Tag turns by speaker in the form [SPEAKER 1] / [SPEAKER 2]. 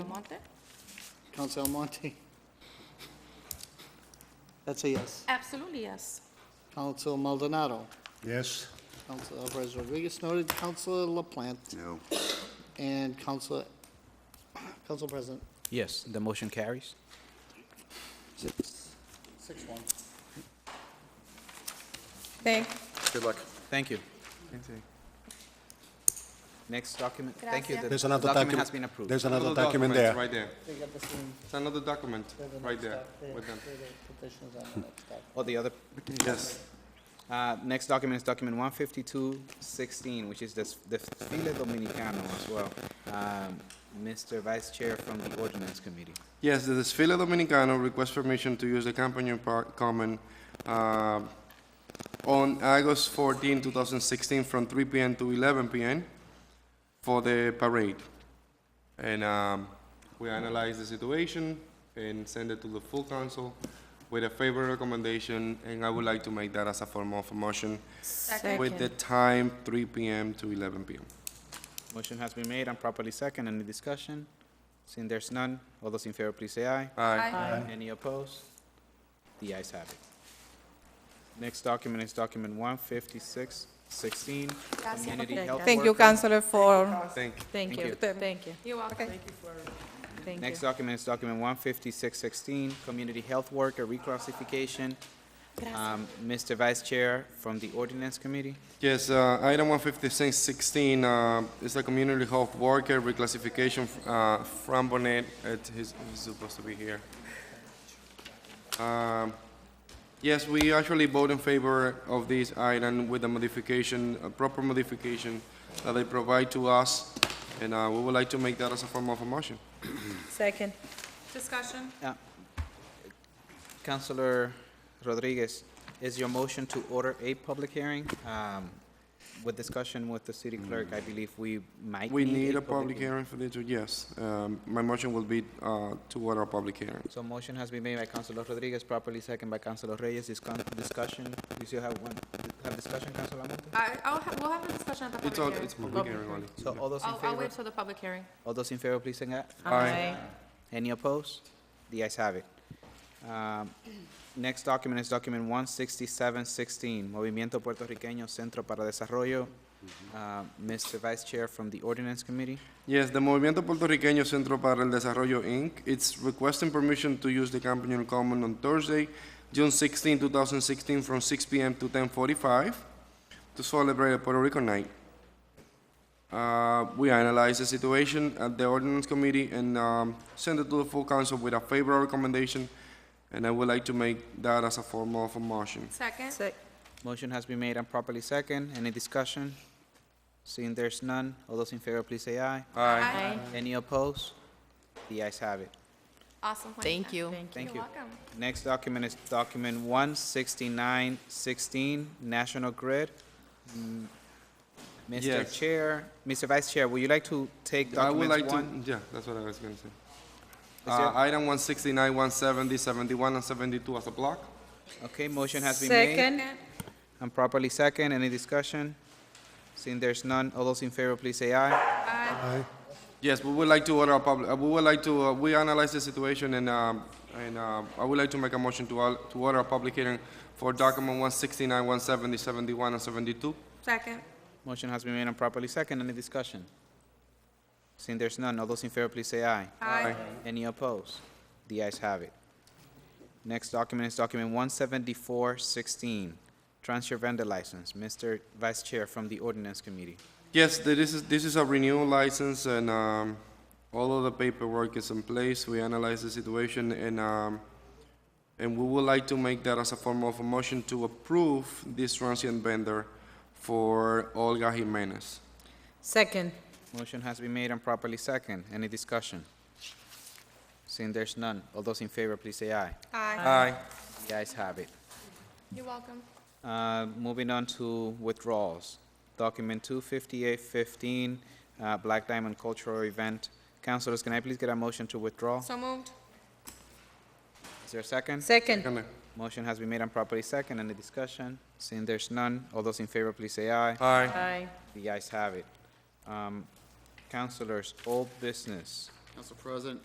[SPEAKER 1] Almonte?
[SPEAKER 2] Council Almonte? That's a yes.
[SPEAKER 1] Absolutely, yes.
[SPEAKER 2] Council Maldonado?
[SPEAKER 3] Yes.
[SPEAKER 2] Council Alvarez Rodriguez noted, Council LaPlante,
[SPEAKER 3] No.
[SPEAKER 2] and Council, Council President.
[SPEAKER 4] Yes, the motion carries.
[SPEAKER 2] Six one.
[SPEAKER 1] Thank,
[SPEAKER 3] Good luck.
[SPEAKER 4] Thank you. Next document, thank you.
[SPEAKER 1] Gracias.
[SPEAKER 4] the
[SPEAKER 3] There's another
[SPEAKER 4] Document
[SPEAKER 3] document.
[SPEAKER 4] has been approved.
[SPEAKER 3] There's another
[SPEAKER 5] Another
[SPEAKER 3] document
[SPEAKER 5] document
[SPEAKER 3] there.
[SPEAKER 5] Right there.
[SPEAKER 2] They got the same,
[SPEAKER 5] It's another document,
[SPEAKER 2] they're the
[SPEAKER 5] right
[SPEAKER 2] next
[SPEAKER 5] there,
[SPEAKER 2] step. They're-
[SPEAKER 5] with them.
[SPEAKER 2] they're the petitions on the next step.
[SPEAKER 4] Or Oh, the other,
[SPEAKER 3] Yes.
[SPEAKER 4] uh, next document is document one fifty-two sixteen, which is this, the File Dominicano as well. Um, Mr. Vice Chair from the Ordinance Committee.
[SPEAKER 5] Yes, the Desfile Dominicano requests permission to use the Campanion Park Common uh, on August 14, 2016, from 3 p.m. to 11 p.m. for the parade. And um, we analyze the situation and send it to the full council with a favorable recommendation, and I would like to make that as a form of a motion with the time 3 p.m. to 11 p.m.
[SPEAKER 4] Motion has been made and properly second. Any discussion? Seeing there's none, all those in favor, please say aye.
[SPEAKER 5] Aye.
[SPEAKER 4] Any opposed? The ayes have it. Next document is document one fifty-six sixteen, community health
[SPEAKER 6] Thank you,
[SPEAKER 4] worker.
[SPEAKER 6] Counselor, for,
[SPEAKER 5] Thank you.
[SPEAKER 6] thank
[SPEAKER 4] Thank you.
[SPEAKER 6] you, thank you.
[SPEAKER 1] You're welcome.
[SPEAKER 6] Thank you.
[SPEAKER 4] Next document is document one fifty-six sixteen, community health worker reclassification. Um, Mr. Vice Chair from the Ordinance Committee.
[SPEAKER 5] Yes, uh, item 15616 uh, is a community health worker reclassification uh, from Bonet. It- He's he's supposed to be here. Um, Yes, we actually vote in favor of this item with a modification, a proper modification that they provide to us, and uh, we would like to make that as a form of a motion.
[SPEAKER 6] Second.
[SPEAKER 1] Discussion?
[SPEAKER 4] Counselor Rodriguez, is your motion to order a public hearing? Um, with discussion with the city clerk, I believe we might
[SPEAKER 5] We need a public hearing for this, yes. Um, My motion will be uh, to order a public hearing.
[SPEAKER 4] So motion has been made by Councilor Rodriguez, properly second by Councilor Reyes. Discon- Discussion, you still have one, have discussion, Councilor Almonte?
[SPEAKER 1] I, I'll, ha- we'll have a discussion at the
[SPEAKER 5] It's all,
[SPEAKER 1] public hearing.
[SPEAKER 5] it's public hearing only.
[SPEAKER 4] So all those in
[SPEAKER 1] I'll, I'll
[SPEAKER 4] favor,
[SPEAKER 1] wait till the public hearing.
[SPEAKER 4] all those in favor, please say aye.
[SPEAKER 5] Aye.
[SPEAKER 4] Any opposed? The ayes have it. Um, Next document is document one sixty-seven sixteen, Movimiento Puertorriqueño Centro para Desarrollo. Uh, Mr. Vice Chair from the Ordinance Committee.
[SPEAKER 5] Yes, the Movimiento Puertorriqueño Centro para el Desarrollo, Inc. It's requesting permission to use the Campanion Common on Thursday, June 16, 2016, from 6 p.m. to 10.45 to celebrate a Puerto Rico Night. Uh, we analyze the situation at the Ordinance Committee and um, send it to the full council with a favorable recommendation, and I would like to make that as a form of a motion.
[SPEAKER 1] Second?
[SPEAKER 6] Sec-
[SPEAKER 4] Motion has been made and properly second. Any discussion? Seeing there's none, all those in favor, please say aye.
[SPEAKER 5] Aye.
[SPEAKER 1] Aye.
[SPEAKER 4] Any opposed? The ayes have it.
[SPEAKER 1] Awesome.
[SPEAKER 6] Thank you.
[SPEAKER 4] Thank you.
[SPEAKER 1] You're welcome.
[SPEAKER 4] Next document is document one sixty-nine sixteen, National Grid. Mm, Mr.
[SPEAKER 5] Yes.
[SPEAKER 4] Chair, Mr. Vice Chair, would you like to take
[SPEAKER 5] I would like
[SPEAKER 4] document
[SPEAKER 5] to,
[SPEAKER 4] one?
[SPEAKER 5] yeah, that's what I was going to say.
[SPEAKER 4] Is there-
[SPEAKER 5] Uh, item 169, 170, 71, and 72 as a block.
[SPEAKER 4] Okay, motion has been made
[SPEAKER 6] Second.
[SPEAKER 4] and properly second. Any discussion? Seeing there's none, all those in favor, please say aye.
[SPEAKER 5] Yes, we would like to order a public, uh, we would like to, uh, we analyze the situation and, um, and uh, I would like to make a motion to, al- to order a public hearing for document 169, 170, 71, and 72.
[SPEAKER 1] Second?
[SPEAKER 4] Motion has been made and properly second. Any discussion? Seeing there's none, all those in favor, please say aye.
[SPEAKER 1] Aye.
[SPEAKER 4] Any opposed? The ayes have it. Next document is document one seventy-four sixteen, transfer vendor license. Mr. Vice Chair from the Ordinance Committee.
[SPEAKER 5] Yes, th- this is, this is a renewal license and um, all of the paperwork is in place. We analyze the situation and, um, and we would like to make that as a form of a motion to approve this transient vendor for Olga Jimenez.
[SPEAKER 6] Second.
[SPEAKER 4] Motion has been made and properly second. Any discussion? Seeing there's none, all those in favor, please say aye.
[SPEAKER 1] Aye.
[SPEAKER 5] Aye.
[SPEAKER 4] The ayes have it.
[SPEAKER 1] You're welcome.
[SPEAKER 4] Uh, Moving on to withdrawals. Document 25815, uh, Black Diamond Cultural Event. Councilors, can I please get a motion to withdraw?
[SPEAKER 1] So moved?
[SPEAKER 4] Is there a second?
[SPEAKER 6] Second.
[SPEAKER 5] Kinda.
[SPEAKER 4] Motion has been made and properly second. Any discussion? Seeing there's none, all those in favor, please say aye.
[SPEAKER 5] Aye.
[SPEAKER 6] Aye.
[SPEAKER 4] The ayes have it. Um, Councilors, old business.
[SPEAKER 2] Council President,